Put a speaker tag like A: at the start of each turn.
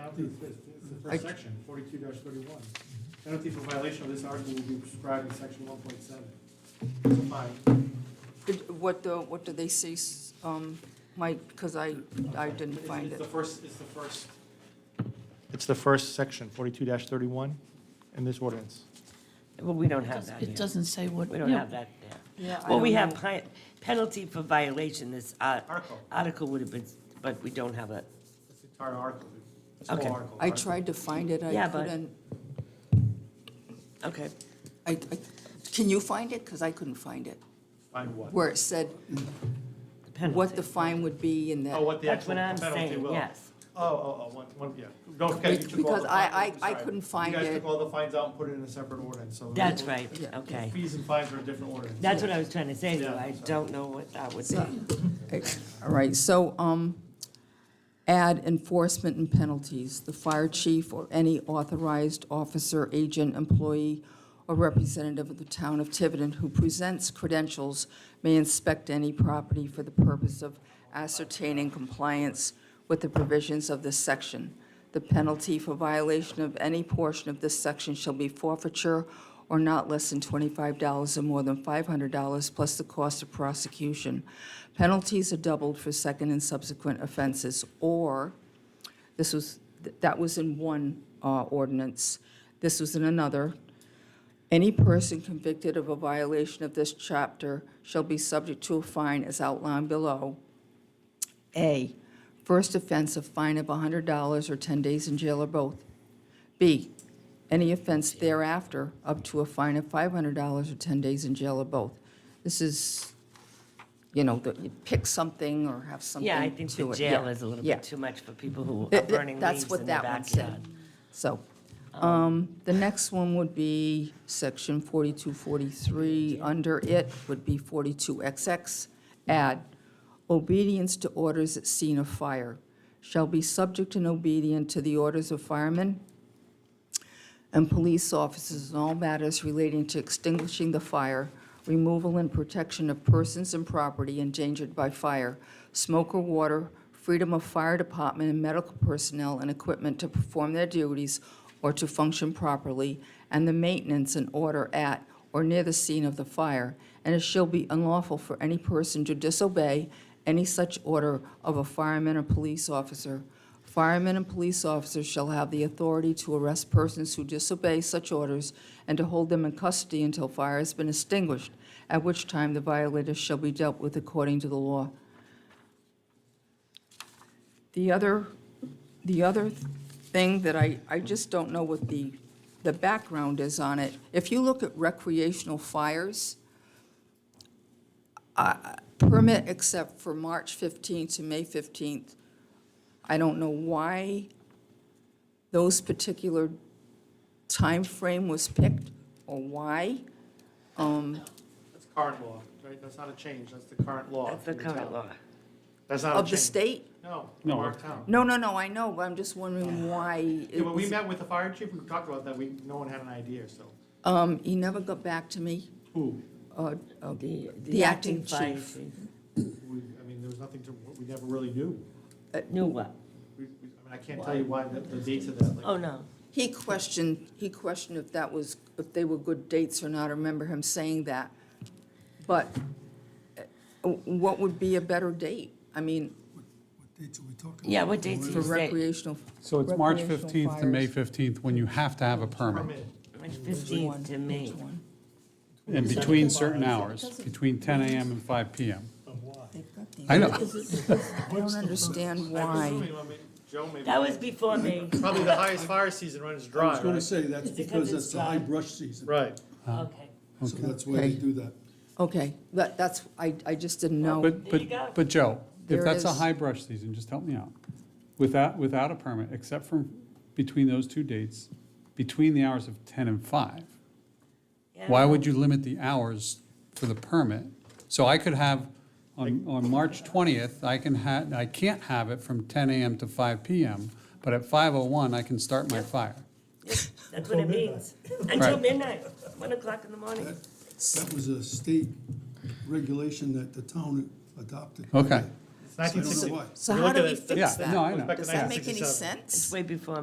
A: penalties, it's, it's the first section, forty-two thirty-one. Penalty for violation of this article will be prescribed in section one point seven. It's a fine.
B: Did- What, uh, what do they say, s- um, Mike, because I, I didn't
A: It's-
B: find
A: It's
B: it.
A: the first, it's the first. It's the first section, forty-two thirty-one in this ordinance.
C: Well, we don't have that
D: It
C: here.
D: doesn't say what.
C: We don't
D: yeah.
C: have that there.
B: Yeah, I
C: Well, we
B: don't
C: have
B: know.
C: pi- penalty for violation, this uh,
A: Article.
C: article would have been, but we don't have it.
A: It's the entire article. It's the whole
C: Okay.
A: article.
B: I tried to find it, I
C: Yeah, but-
B: couldn't,
C: Okay.
B: I, I, can you find it? Because I couldn't find it,
A: Fine what?
B: where it said
C: the penalty.
B: what the fine would be and
A: Oh,
B: that.
A: what the
C: That's
A: actual
C: what I'm
A: penalty
C: saying,
A: will.
C: yes.
A: Oh, oh, oh, one, one, yeah. Don't forget, you took all
B: Because
A: the.
B: I-
A: fines-
B: I- I
A: sorry.
B: couldn't find
A: You guys
B: it.
A: took all the fines out and put it in a separate ordinance, so.
C: That's right,
B: Yeah.
C: okay.
A: Fees and fines are a different ordinance.
C: That's what I was trying to say, though.
A: Yeah,
C: I
A: sorry.
C: don't know what that would be.
B: So- All right, so, um, add enforcement and penalties. The fire chief or any authorized officer, agent, employee, or representative of the town of Tiverton who presents credentials may inspect any property for the purpose of ascertaining compliance with the provisions of this section. The penalty for violation of any portion of this section shall be forfeiture or not less than $25 or more than $500 plus the cost of prosecution. Penalties are doubled for second and subsequent offenses, or, this was, that was in one uh, ordinance, this was in another. Any person convicted of a violation of this chapter shall be subject to a fine as outlined below. A, first offense, a fine of $100 or 10 days in jail or both. B, any offense thereafter, up to a fine of $500 or 10 days in jail or both. This is, you know, that you pick something or have something to it.
C: Yeah, I think the jail is a little
B: yeah.
C: bit too much for people who are
B: Th- th-
C: burning leaves
B: That's
C: in the
B: what that one
C: backyard.
B: said. So, um, the next one would be section 4243. Under it would be 42XX. Add, obedience to orders at scene of fire shall be subject and obedient to the orders of firemen and police officers in all matters relating to extinguishing the fire, removal and protection of persons and property endangered by fire, smoke or water, freedom of fire department and medical personnel and equipment to perform their duties or to function properly, and the maintenance and order at or near the scene of the fire, and it shall be unlawful for any person to disobey any such order of a fireman or police officer. Firemen and police officers shall have the authority to arrest persons who disobey such orders and to hold them in custody until fire has been extinguished, at which time the violators shall be dealt with according to the law. The other, the other thing that I, I just don't know what the, the background is on it. If you look at recreational fires, uh, permit except for March 15th to May 15th, I don't know why those particular time frame was picked or why.
A: That's current law, right? That's not a change, that's the current law.
C: That's the
A: for
C: current
A: town.
C: law.
A: That's not a change.
B: Of the state?
A: No,
E: No.
A: of our town.
B: No, no, no, I know, but I'm just wondering why.
A: Yeah,
B: it
A: when we
B: was-
A: met with the fire chief, we talked about that, we, no one had an idea, so.
B: Um, he never got back to me.
A: Who?
B: Uh, uh,
C: The
B: The acting
C: fire
B: chief.
A: We, I mean, there was nothing to, we never really knew.
C: Knew what?
A: We, we- I mean, I can't tell you why, the, the dates of that, like.
C: Oh, no.
B: He questioned, he questioned if that was, if they were good dates or not. I remember him saying that. But uh, what would be a better date? I mean,
F: What dates are we talking about?
C: Yeah, what dates
B: for
C: did you say?
B: recreational.
E: So it's March
B: recreational
E: 15th to May
B: fires.
E: 15th when you have to have a permit,
A: Permit.
C: March
B: Which one?
C: 15th to me.
B: Which one?
E: in between certain hours, between 10 AM and 5 PM. I know,
B: I don't understand
A: I'm
B: why.
A: assuming, I mean, Joe maybe.
C: That was before me.
A: Probably the highest fire season runs
F: I
A: dry,
F: was gonna
A: right?
F: say, that's
C: It's because it's
F: because
C: uh,
F: that's the high
C: dry.
F: brush season.
A: Right.
E: Uh-huh.
C: Okay.
F: So that's why they
B: Okay.
F: do that.
B: Okay, that, that's, I, I just didn't know.
E: but,
C: There you go.
E: but, but Joe,
B: There
E: if
B: it
E: that's a
B: is.
E: high brush season, just help me out. Without, without a permit, except for between those two dates, between the hours of 10 and 5,
C: Yeah.
E: why would you limit the hours for the permit? So I could have, on, on March 20th, I can ha, I can't have it from 10 AM to 5 PM, but at 5:01, I can start my fire.
C: That's what it means. Until
E: Right.
C: midnight, 1 o'clock in the morning.
F: That, that was a state regulation that the town adopted.
E: Okay.
A: It's
F: So I don't know
A: 1960.
F: why.
B: So
A: You
B: how
A: look
B: do
A: at
B: we
A: it-
B: fix
E: Yeah, no, I
B: that?
E: know.
A: Back to
B: Does that make any
A: 1967.
B: sense?
C: Way before